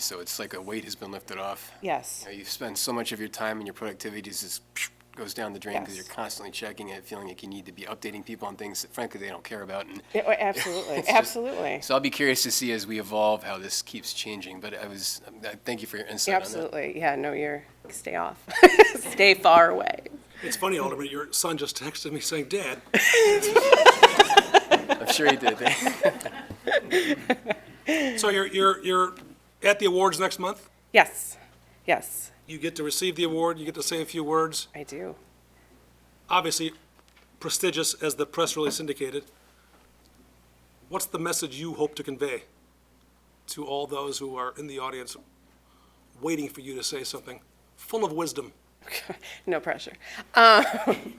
So it's like a weight has been lifted off. Yes, You know, you spend so much of your time and your productivity just goes down the drain because Yes. you're constantly checking it, feeling like you need to be updating people on things that frankly they don't care about. And Yeah, well, absolutely, It's just- absolutely, so I'll be curious to see as we evolve how this keeps changing. But I was, I thank you for your insight on that. absolutely. Yeah, no, you're, stay off, stay far away. It's funny, Alderman, your son just texted me saying, Dad, I'm sure you did. so you're, you're, you're at the awards next month? Yes, yes, You get to receive the award, you get to say a few words, I do. obviously prestigious as the press release indicated. What's the message you hope to convey to all those who are in the audience waiting for you to say something full of wisdom? no pressure. Um,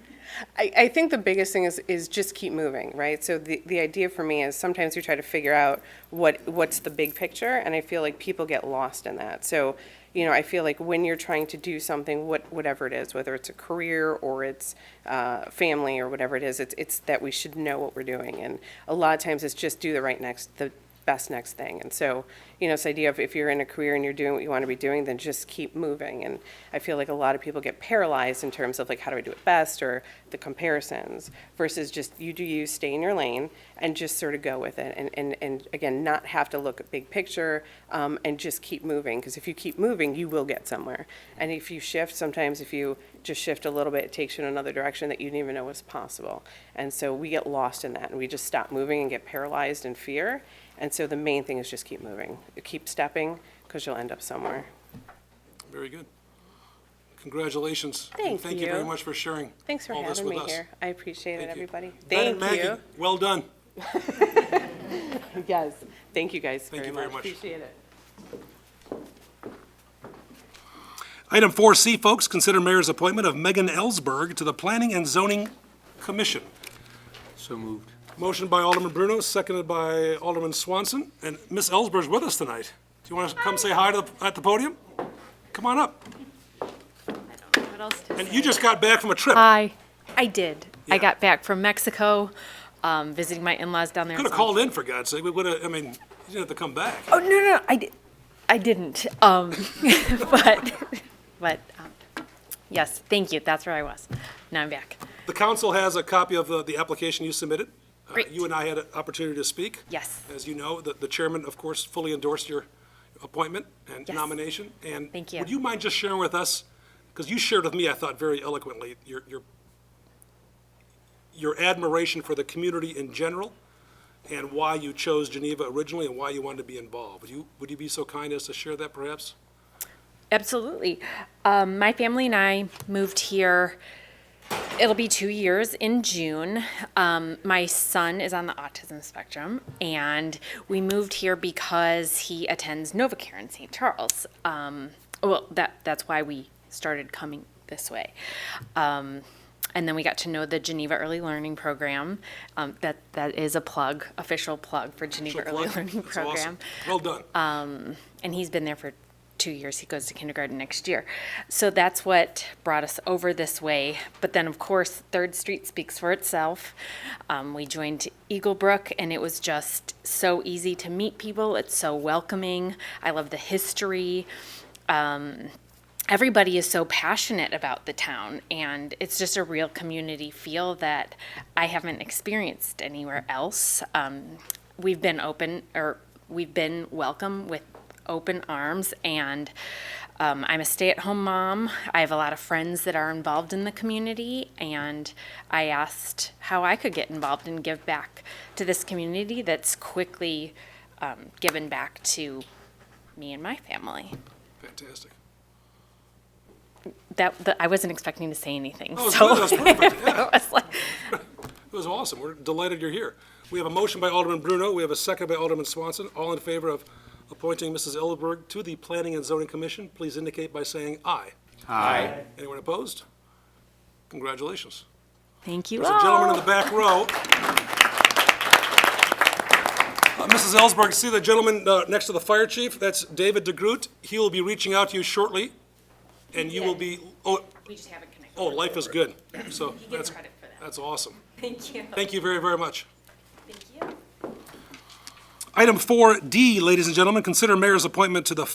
I, I think the biggest thing is, is just keep moving, right? So the, the idea for me is sometimes you try to figure out what, what's the big picture, and I feel like people get lost in that. So, you know, I feel like when you're trying to do something, what, whatever it is, whether it's a career or it's uh, family or whatever it is, it's, it's that we should know what we're doing. And a lot of times it's just do the right next, the best next thing. And so, you know, this idea of if you're in a career and you're doing what you want to be doing, then just keep moving. And I feel like a lot of people get paralyzed in terms of like, how do I do it best or the comparisons versus just you do you, stay in your lane and just sort of go with it. And, and, and again, not have to look at big picture um, and just keep moving. Because if you keep moving, you will get somewhere. And if you shift, sometimes if you just shift a little bit, it takes you in another direction that you didn't even know was possible. And so we get lost in that and we just stop moving and get paralyzed in fear. And so the main thing is just keep moving, keep stepping, because you'll end up somewhere. Very good. Congratulations. and Thank Thank you very you. much for sharing Thanks for all this having with me us. here. I appreciate it, Thank you. everybody. Madam Thank you. Mackey, Well done. Yes. Thank you guys Thank very you very much. much. Appreciate it. Item 4C, folks, consider mayor's appointment of Megan Ellsberg to the Planning and Zoning Commission. So moved. Motion by Alderman Bruno, seconded by Alderman Swanson. And Miss Ellsberg's with us tonight. Do you want to come say hi to the- at the podium? Come on up. What else to And say? you just got back from a trip. I, I did. Yeah. I got back from Mexico, um, visiting my in-laws down there. Could have called in, for God's sake. We would have, I mean, you didn't have to come back. Oh no, no, I did. I didn't. Um, but, but, um, yes, thank you. That's where I was. Now I'm back. The council has a copy of uh, the, the application you submitted. Uh, Great. You and I had an opportunity to speak. Yes. As you know, the, the chairman, of course, fully endorsed your appointment and Yes. nomination. And Thank you. would you mind just sharing with us, because you shared with me, I thought, very eloquently, your, your, your admiration for the community in general and why you chose Geneva originally and why you wanted to be involved. Would you, would you be so kind as to share that perhaps? Absolutely. Um, my family and I moved here. It'll be two years in June. Um, my son is on the autism spectrum, and we moved here because he attends Novacare in St. Charles. Um, well, that that's why we started coming this way. Um, and then we got to know the Geneva Early Learning Program. Um, that that is a plug, official plug for Geneva Early Learning That's awesome. Program Um, Well done. and he's been there for two years. He goes to kindergarten next year. So that's what brought us over this way. But then, of course, Third Street speaks for itself. Um, we joined Eagle Brook, and it was just so easy to meet people. It's so welcoming. I love the history. Um, everybody is so passionate about the town, and it's just a real community feel that I haven't experienced anywhere else. Um, we've been open, or we've been welcome with open arms, and um, I'm a stay at home mom. I have a lot of friends that are involved in the community, and I asked how I could get involved and give back to this community that's quickly um, given back to me and my family Fantastic. that, that I wasn't expecting to say anything. That was so Oh, good. That was perfect. Yeah. I was like, It was awesome. We're delighted you're here. We have a motion by Alderman Bruno. We have a second by Alderman Swanson. All in favor of appointing Mrs. Ellsberg to the Planning and Zoning Commission, please indicate by saying aye. Aye. Anyone opposed? Congratulations. thank you. There's a gentleman in the all." back row. Uh, Mrs. Ellsberg, see the gentleman uh, next to the fire chief? That's David DeGroot. He will be reaching out to you shortly, and you will be, oh, We just haven't connected. oh, life is good. So gets that's, credit for that. that's awesome. Thank you. Thank you very, very much. Thank you. Item 4D, ladies and gentlemen, consider mayor's appointment to the